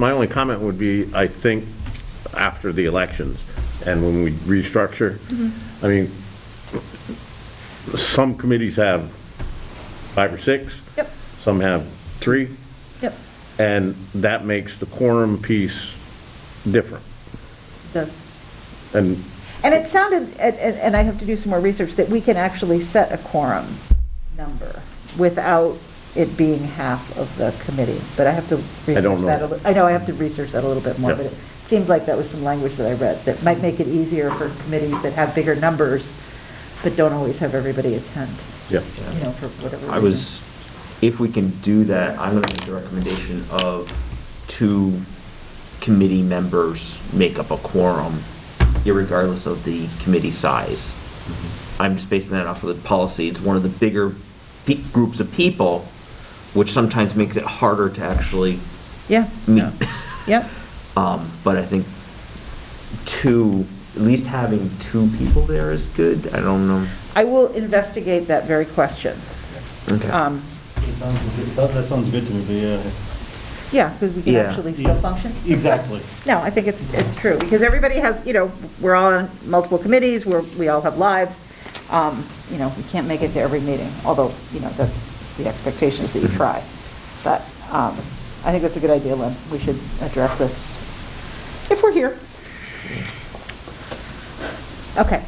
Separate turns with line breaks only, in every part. My only comment would be, I think, after the elections, and when we restructure, I mean, some committees have five or six.
Yep.
Some have three,
Yep,
and that makes the quorum piece different.
it does.
And
And it sounded, and- and and I have to do some more research, that we can actually set a quorum number without it being half of the committee, but I have to
I don't
research
know.
that. a li- I know, I have to research that a little bit more,
Yeah.
but it seemed like that was some language that I read that might make it easier for committees that have bigger numbers, but don't always have everybody attend,
Yeah.
you know, for whatever reason.
I was, if we can do that, I'm gonna make the recommendation of two committee members make up a quorum, irregardless of the committee size. I'm just basing that off of the policy. It's one of the bigger pe- groups of people, which sometimes makes it harder to actually
Yeah,
meet.
yep,
Um, but I think two, at least having two people there is good. I don't know.
I will investigate that very question.
Okay.
Um,
That sounds good- That, that sounds good to me, but yeah.
Yeah, because we can
Yeah.
actually still function.
Exactly.
No, I think it's, it's true, because everybody has, you know, we're all on multiple committees, we're, we all have lives. Um, You know, we can't make it to every meeting, although, you know, that's the expectation is that you try. But um, I think that's a good idea, Lynn. We should address this if we're here. Okay.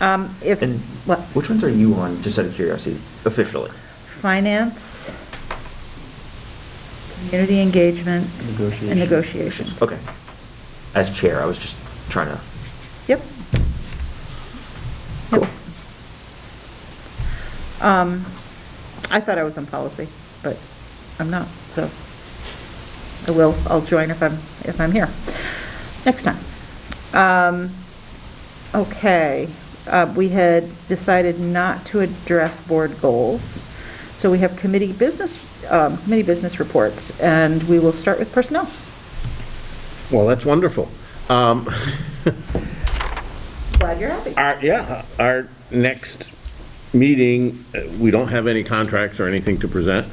Um, If,
And
what,
which ones are you on, just out of curiosity, officially?
finance, community engagement. And
Negotiation.
negotiations.
Okay. As chair, I was just trying to,
Yep. Cool. Um, I thought I was on policy, but I'm not, so I will, I'll join if I'm, if I'm here next time. Um, okay, uh, we had decided not to address board goals. So we have committee business, um, committee business reports, and we will start with personnel.
Well, that's wonderful. Um,
Glad you're happy.
Our, yeah, our next meeting, uh, we don't have any contracts or anything to present.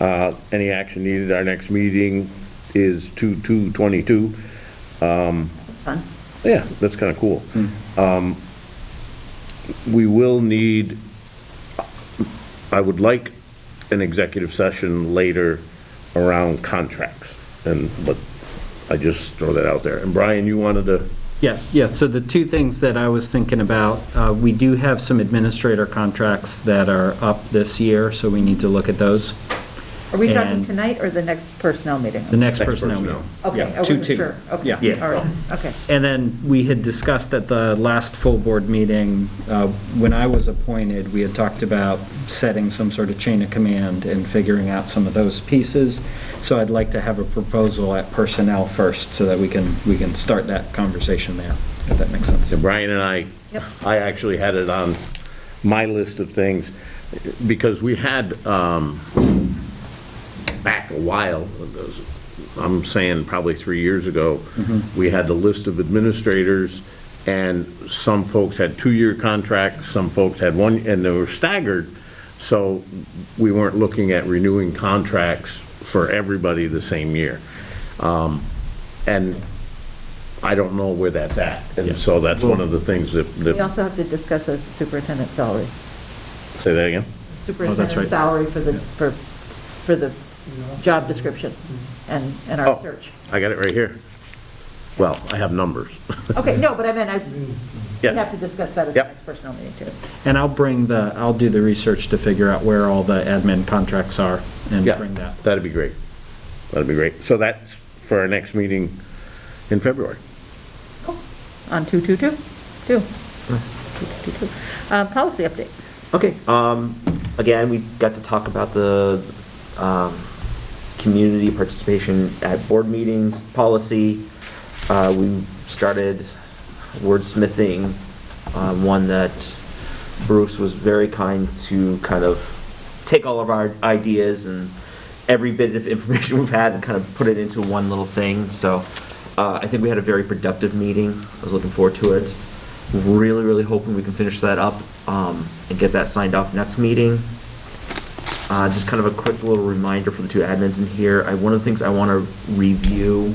Uh, Any action needed, our next meeting is 2/2/22.
That's fun.
Yeah, that's kind of cool. Um, We will need, I would like an executive session later around contracts. And, but I just throw that out there. And Brian, you wanted to,
Yeah, yeah, so the two things that I was thinking about, uh, we do have some administrator contracts that are up this year, so we need to look at those.
Are we talking
And-
tonight or the next personnel meeting?
The next
Next
personnel meeting.
personnel.
Okay,
Yeah,
I
two,
wasn't
two.
sure. Okay,
Yeah.
Yeah.
All right, okay.
And then we had discussed at the last full board meeting, uh, when I was appointed, we had talked about setting some sort of chain of command and figuring out some of those pieces. So I'd like to have a proposal at personnel first, so that we can, we can start that conversation there, if that makes sense.
so Brian and I,
Yep.
I actually had it on my list of things because we had, um, back a while, I'm saying probably three years ago, we had the list of administrators, and some folks had two-year contracts, some folks had one, and they were staggered, so we weren't looking at renewing contracts for everybody the same year. Um, And I don't know where that's at, and so that's one of the things that,
We
that,
also have to discuss a superintendent salary.
say that again?
Superintendent
right.
salary for the, for, for the job description and, and our
Oh,
search.
I got it right here. Well, I have numbers.
Okay, no, but I meant, I, we
Yes.
have to discuss that at the
Yep.
next personnel meeting too.
And I'll bring the, I'll do the research to figure out where all the admin contracts are and
Yeah,
bring that.
That'd be great. That'd be great. So that's for our next meeting in February.
On two, two, two, two. Two, two, two. Uh, policy update.
okay, um, again, we got to talk about the, um, community participation at board meetings, policy. Uh, we started wordsmithing, uh, one that Bruce was very kind to kind of take all of our ideas and every bit of information we've had and kind of put it into one little thing, so, uh, I think we had a very productive meeting, I was looking forward to it. Really, really hoping we can finish that up, um, and get that signed off next meeting. Uh, Just kind of a quick little reminder for the two admins in here. I- One of the things I want to review